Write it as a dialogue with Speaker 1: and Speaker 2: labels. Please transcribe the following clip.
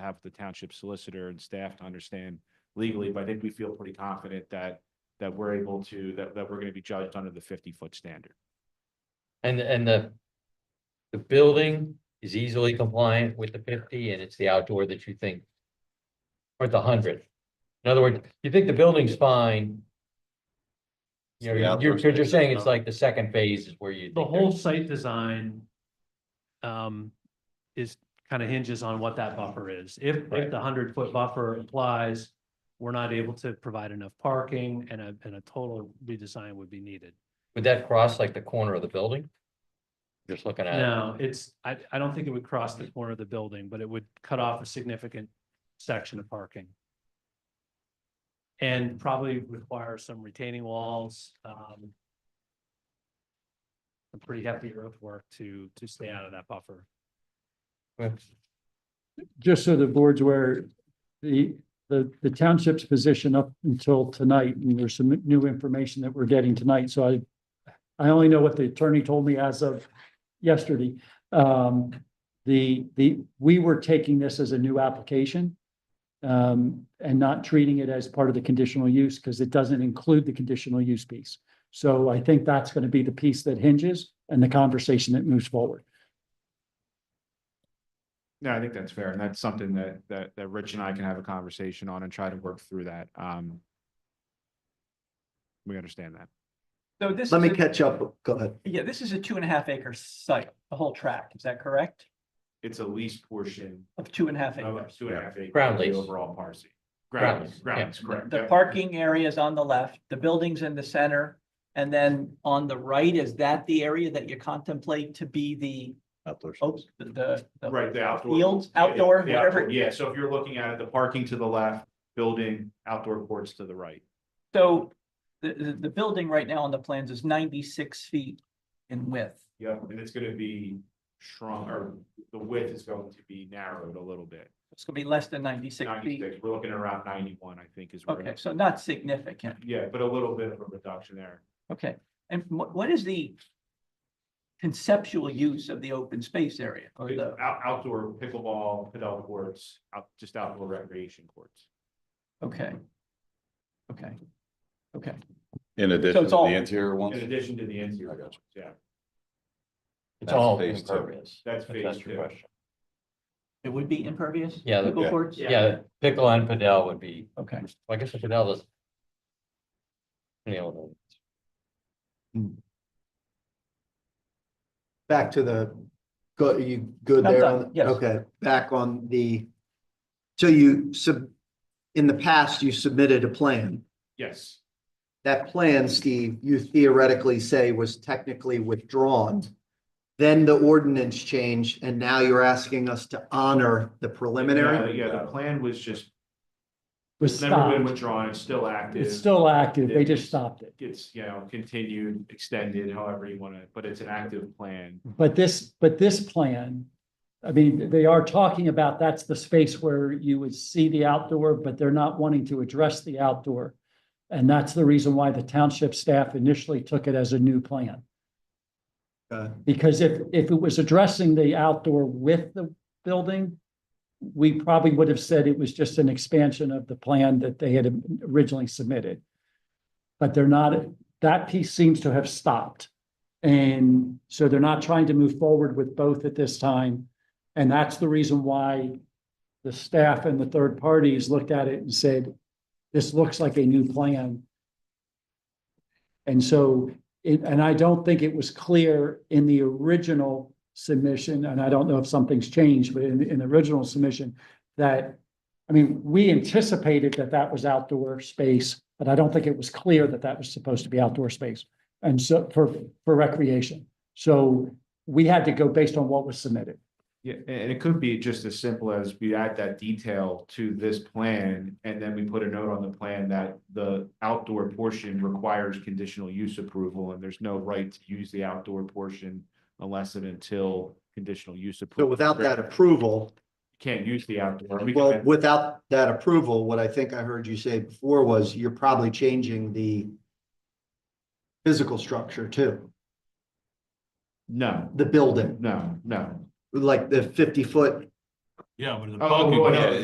Speaker 1: have the township solicitor and staff to understand legally, but I think we feel pretty confident that that we're able to, that that we're gonna be judged under the fifty foot standard.
Speaker 2: And, and the. The building is easily compliant with the fifty and it's the outdoor that you think. Or the hundred. In other words, you think the building's fine. You're,
Speaker 3: the
Speaker 2: you're,
Speaker 3: outdoor
Speaker 2: because you're
Speaker 3: space
Speaker 2: saying
Speaker 3: is
Speaker 2: it's
Speaker 3: not-
Speaker 2: like the second phase is where you.
Speaker 4: The
Speaker 2: think they're-
Speaker 4: whole site design um, is kind of hinges on what that buffer is. If,
Speaker 2: Right.
Speaker 4: if the hundred foot buffer applies, we're not able to provide enough parking and a, and a total redesign would be needed.
Speaker 2: Would that cross like the corner of the building? Just looking at it,
Speaker 4: No, it's, I, I don't think it would cross the corner of the building, but it would cut off a significant section of parking. And probably require some retaining walls, um. Some pretty hefty earthwork to, to stay out of that buffer.
Speaker 5: just so the board's aware, the, the, the township's position up until tonight, and there's some new information that we're getting tonight, so I, I only know what the attorney told me as of yesterday. Um, the, the, we were taking this as a new application um, and not treating it as part of the conditional use, because it doesn't include the conditional use piece. So I think that's going to be the piece that hinges and the conversation that moves forward.
Speaker 1: No, I think that's fair, and that's something that that that Rich and I can have a conversation on and try to work through that. Um. We understand that.
Speaker 6: So this.
Speaker 3: Let
Speaker 6: is
Speaker 3: me
Speaker 6: a-
Speaker 3: catch up. Go ahead.
Speaker 6: Yeah, this is a two and a half acre site, the whole tract, is that correct?
Speaker 1: It's a lease portion
Speaker 6: Of two and a half
Speaker 1: of
Speaker 6: acres.
Speaker 1: two and a half acres.
Speaker 2: Ground
Speaker 1: of the
Speaker 2: lease.
Speaker 1: Overall parcel.
Speaker 2: Ground
Speaker 1: Ground, lease,
Speaker 2: lease,
Speaker 1: ground
Speaker 2: yeah.
Speaker 1: lease, correct.
Speaker 6: The
Speaker 1: Yep.
Speaker 6: parking area is on the left, the building's in the center. And then on the right, is that the area that you contemplate to be the,
Speaker 3: Outdoor
Speaker 6: oops,
Speaker 3: space.
Speaker 6: the- the. the
Speaker 1: Right, the outdoor.
Speaker 6: Fields,
Speaker 1: Yeah, yeah,
Speaker 6: outdoor,
Speaker 1: the
Speaker 6: whatever.
Speaker 1: outdoor, Yeah, so if you're looking at it, the parking to the left, building, outdoor courts to the right.
Speaker 6: So the, the, the building right now on the plans is ninety-six feet in width.
Speaker 1: Yeah, and it's gonna be shrunk, or the width is going to be narrowed a little bit.
Speaker 6: It's gonna be less than ninety-six feet.
Speaker 1: Ninety-six, we're looking at around ninety-one, I think is where.
Speaker 6: Okay, so not significant.
Speaker 1: Yeah, but a little bit of a reduction there.
Speaker 6: Okay, and what, what is the conceptual use of the open space area or the?
Speaker 1: Out, outdoor pickleball, padel courts, out, just outdoor recreation courts.
Speaker 6: Okay. Okay. Okay,
Speaker 7: In addition to
Speaker 6: all-
Speaker 7: the interior
Speaker 1: In
Speaker 7: ones?
Speaker 1: addition to the interior,
Speaker 7: I got
Speaker 1: courts, yeah,
Speaker 2: it's all
Speaker 7: That's phase two.
Speaker 2: impervious.
Speaker 1: that's
Speaker 2: if
Speaker 1: phase
Speaker 2: That's your
Speaker 1: two.
Speaker 2: question.
Speaker 6: it would be impervious?
Speaker 2: Yeah, the-
Speaker 6: Pickle courts?
Speaker 2: Yeah, pickle and padel would be,
Speaker 6: Okay,
Speaker 2: I guess the padel is. You know,
Speaker 3: Back to the, go, are you good
Speaker 6: I'm
Speaker 3: there?
Speaker 6: done,
Speaker 3: on-
Speaker 6: yes.
Speaker 3: Okay, back on the, so you sub, in the past, you submitted a plan.
Speaker 1: Yes,
Speaker 3: That plan, Steve, you theoretically say was technically withdrawn. Then the ordinance changed and now you're asking us to honor the preliminary?
Speaker 1: Uh, yeah, the plan was just,
Speaker 5: Was
Speaker 1: it's never been
Speaker 5: stopped.
Speaker 1: withdrawn, it's still active.
Speaker 5: It's still active. They just stopped it.
Speaker 1: It's, you know, continued, extended, however you wanna, but it's an active plan.
Speaker 5: But this, but this plan, I mean, they are talking about that's the space where you would see the outdoor, but they're not wanting to address the outdoor. And that's the reason why the township staff initially took it as a new plan.
Speaker 3: Okay.
Speaker 5: Because if, if it was addressing the outdoor with the building, we probably would have said it was just an expansion of the plan that they had originally submitted. But they're not, that piece seems to have stopped. And so they're not trying to move forward with both at this time. And that's the reason why the staff and the third parties looked at it and said, this looks like a new plan. And so it, and I don't think it was clear in the original submission, and I don't know if something's changed, but in, in the original submission, that, I mean, we anticipated that that was outdoor space, but I don't think it was clear that that was supposed to be outdoor space. And so for, for recreation. So we had to go based on what was submitted.
Speaker 1: Yeah, a- and it could be just as simple as we add that detail to this plan, and then we put a note on the plan that the outdoor portion requires conditional use approval, and there's no right to use the outdoor portion unless and until conditional use
Speaker 3: So
Speaker 1: approval.
Speaker 3: without that approval,
Speaker 1: Can't use the outdoor. We
Speaker 3: Well,
Speaker 1: can't-
Speaker 3: without that approval, what I think I heard you say before was you're probably changing the physical structure too,
Speaker 1: No,
Speaker 3: the building,
Speaker 1: no, no.
Speaker 3: like the fifty foot
Speaker 7: Yeah, but the
Speaker 1: Oh,
Speaker 7: parking.
Speaker 1: well, yeah,